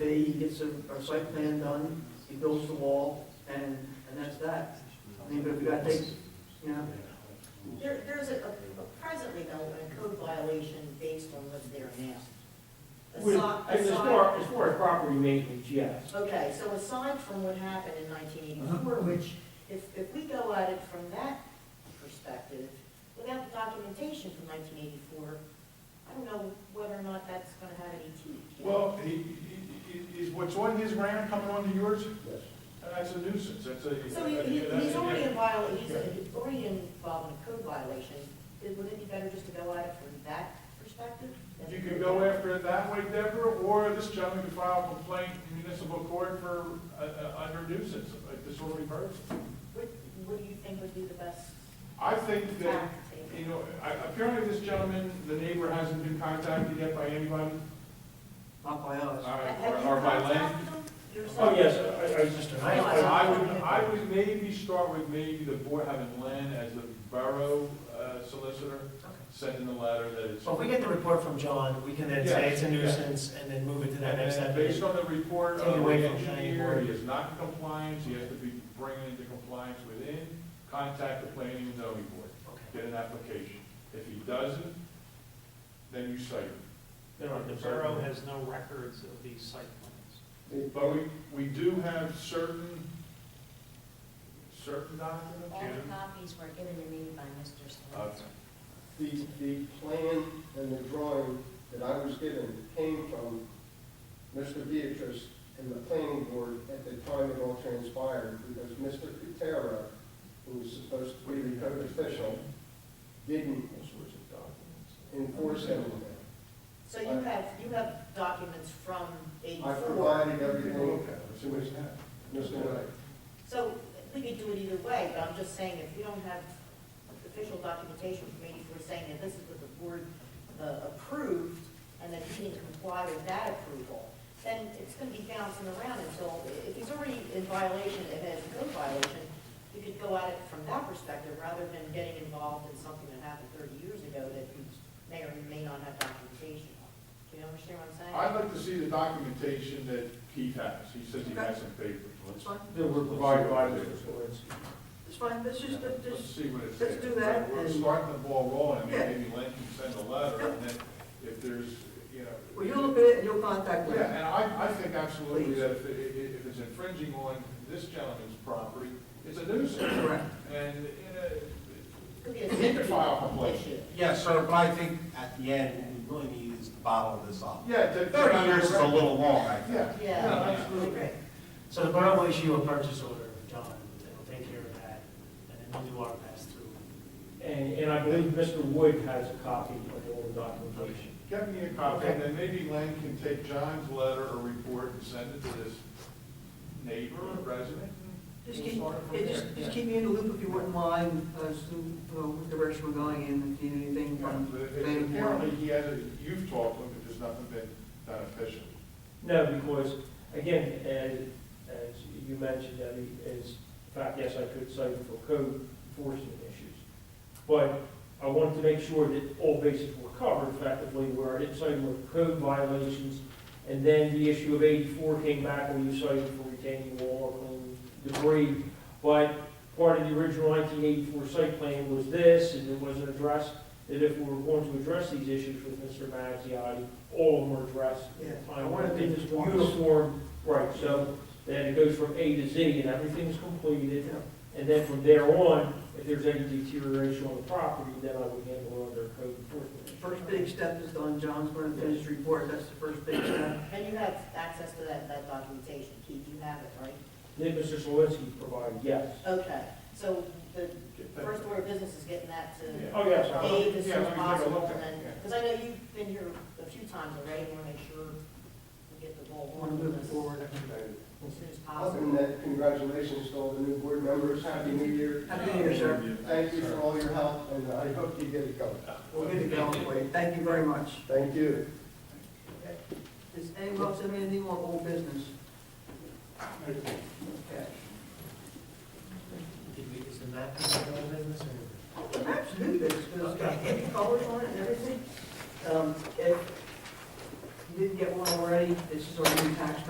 he gets a, a site plan done, he builds the wall, and, and that's that. I mean, but if we got things, you know, There, there's a, a- presently though, a code violation based on what's there now. With- Aside- As aside- far, as far as property maintenance, yes. Okay, so aside from what happened in nineteen Uh-huh. eighty-four, which, if, if we go at it from that perspective, without the documentation from nineteen eighty-four, I don't know whether or not that's gonna have any teeth. Well, he, he, he- is what's on his ground coming onto yours? Yes. That's a nuisance, that's a. So he, he- that's he's a- already in viola, he's he's already involved in a code violation, It- wouldn't it be better just to go at it from that perspective? You can go after it that way, Deborah, or this gentleman can file a complaint in municipal court for, uh, uh, under nuisance, a disorderly person. What, what do you think would be the best I think that, tack to take? you know, I- apparently this gentleman, the neighbor hasn't been contacted yet by anybody, not by uh, us. Have you or by land. contacted them yourself? Oh, yes, I, I was just. I I would, I would maybe start with maybe the board having Len as the borough uh, solicitor, sending the letter that it's. So if we get the report from John, we can then say it's a nuisance and then move it to that And next then step. based on the report Take of the away from planning engineer, board. he is not in compliance, he has to be bringing into compliance within, contact the planning and zoning board, Okay. get an application. If he doesn't, then you cite him. The borough has no records of these site plans. But we, we do have certain, certain documents. All the copies were given to me by Mr. Okay. Swanson. The, the plan and the drawing that I was given came from Mr. Beatrice and the planning board at the time it all transpired, because Mr. Cutera, who was supposed to be the code official, didn't enforce anything. So you have, you have documents from I eighty-four, provided everything So where's that? Mr. Knight. so we could do it either way, but I'm just saying, if we don't have official documentation from eighty-four saying that this is what the board uh, approved, and that he didn't comply with that approval, then it's gonna be bouncing around until, if he's already in violation, if it's a code violation, you could go at it from that perspective, rather than getting involved in something that happened thirty years ago that you may or may not have documentation on. Do you understand what I'm saying? I'd like to see the documentation that Keith has, he says he has some papers. It's fine, There were provided by the- it's fine, let's just, let's Let's just, see what it says. let's do that We're and- starting the ball rolling, I mean, Yeah. maybe Lynn can send a letter, and then if there's, you know. well, you look at it and you'll contact Yeah, them. and I, I think absolutely Please. that if, it- it- if it's infringing on this gentleman's property, it's a nuisance. Correct. And, you Could be know, a he can file a complaint. issue. Yes, sir, but I think at the end, what we really need is to bottle this up. Yeah. to- Thirty years is a little long, I think. Yeah. Yeah, no, I absolutely. agree. So the borough will issue a purchase order of John, and we'll take care of that, and then we'll do our best to. And, and I believe Mr. Wood has a copy of all the documentation. Get me a copy, and then maybe Lynn can take John's letter or report and send it to this neighbor or resident. and Just we'll keep, start from yeah, there. just, Yeah. just keep me in the loop if you wouldn't mind, as to, uh, what direction we're going in, if you need anything from But it- planning board. Apparently, uh, he hasn't, you've talked to him, but there's nothing been done officially. No, because, again, as, as you mentioned, Debbie, is, in fact, yes, I could cite him for code enforcement issues. But I wanted to make sure that all bases were covered effectively, where I didn't cite him for code violations, and then the issue of eighty-four came back where you cited him for retaining wall or clean debris. But part of the original nineteen eighty-four site plan was this, and it wasn't addressed, that if we were going to address these issues with Mr. Mazziotti, all of them were addressed Yeah, I want to be this uniform, right, so that it goes from A to Z and everything's completed. And then from there on, if there's any deterioration on the property, then I would handle it under code enforcement. First big step is done, John's gonna finish his report, that's the first big step. And you have access to that, that documentation, Keith, you have it, right? That Mr. Solinsky provided, yes. Okay, so the Get that- first order of business is getting that Yeah. to Oh, yes, I- Dave as soon Yeah, as let me take a look possible, at and it, then, because I know you've been here a few times already, I want to make sure we get the I ball wanna rolling on move this it forward. as soon as Other than possible. that, congratulations to all the new board members, happy new year. Happy New Year, sir. Thank you for all your help, and I hope you get it going. We'll get it going for you. Thank you very much. Thank you. Does anyone else have anything on old business? Okay. Did we, is the map in the business or? Perhaps new business, because it's got different colors on it and everything. Um, If you didn't get one already, this is our new tax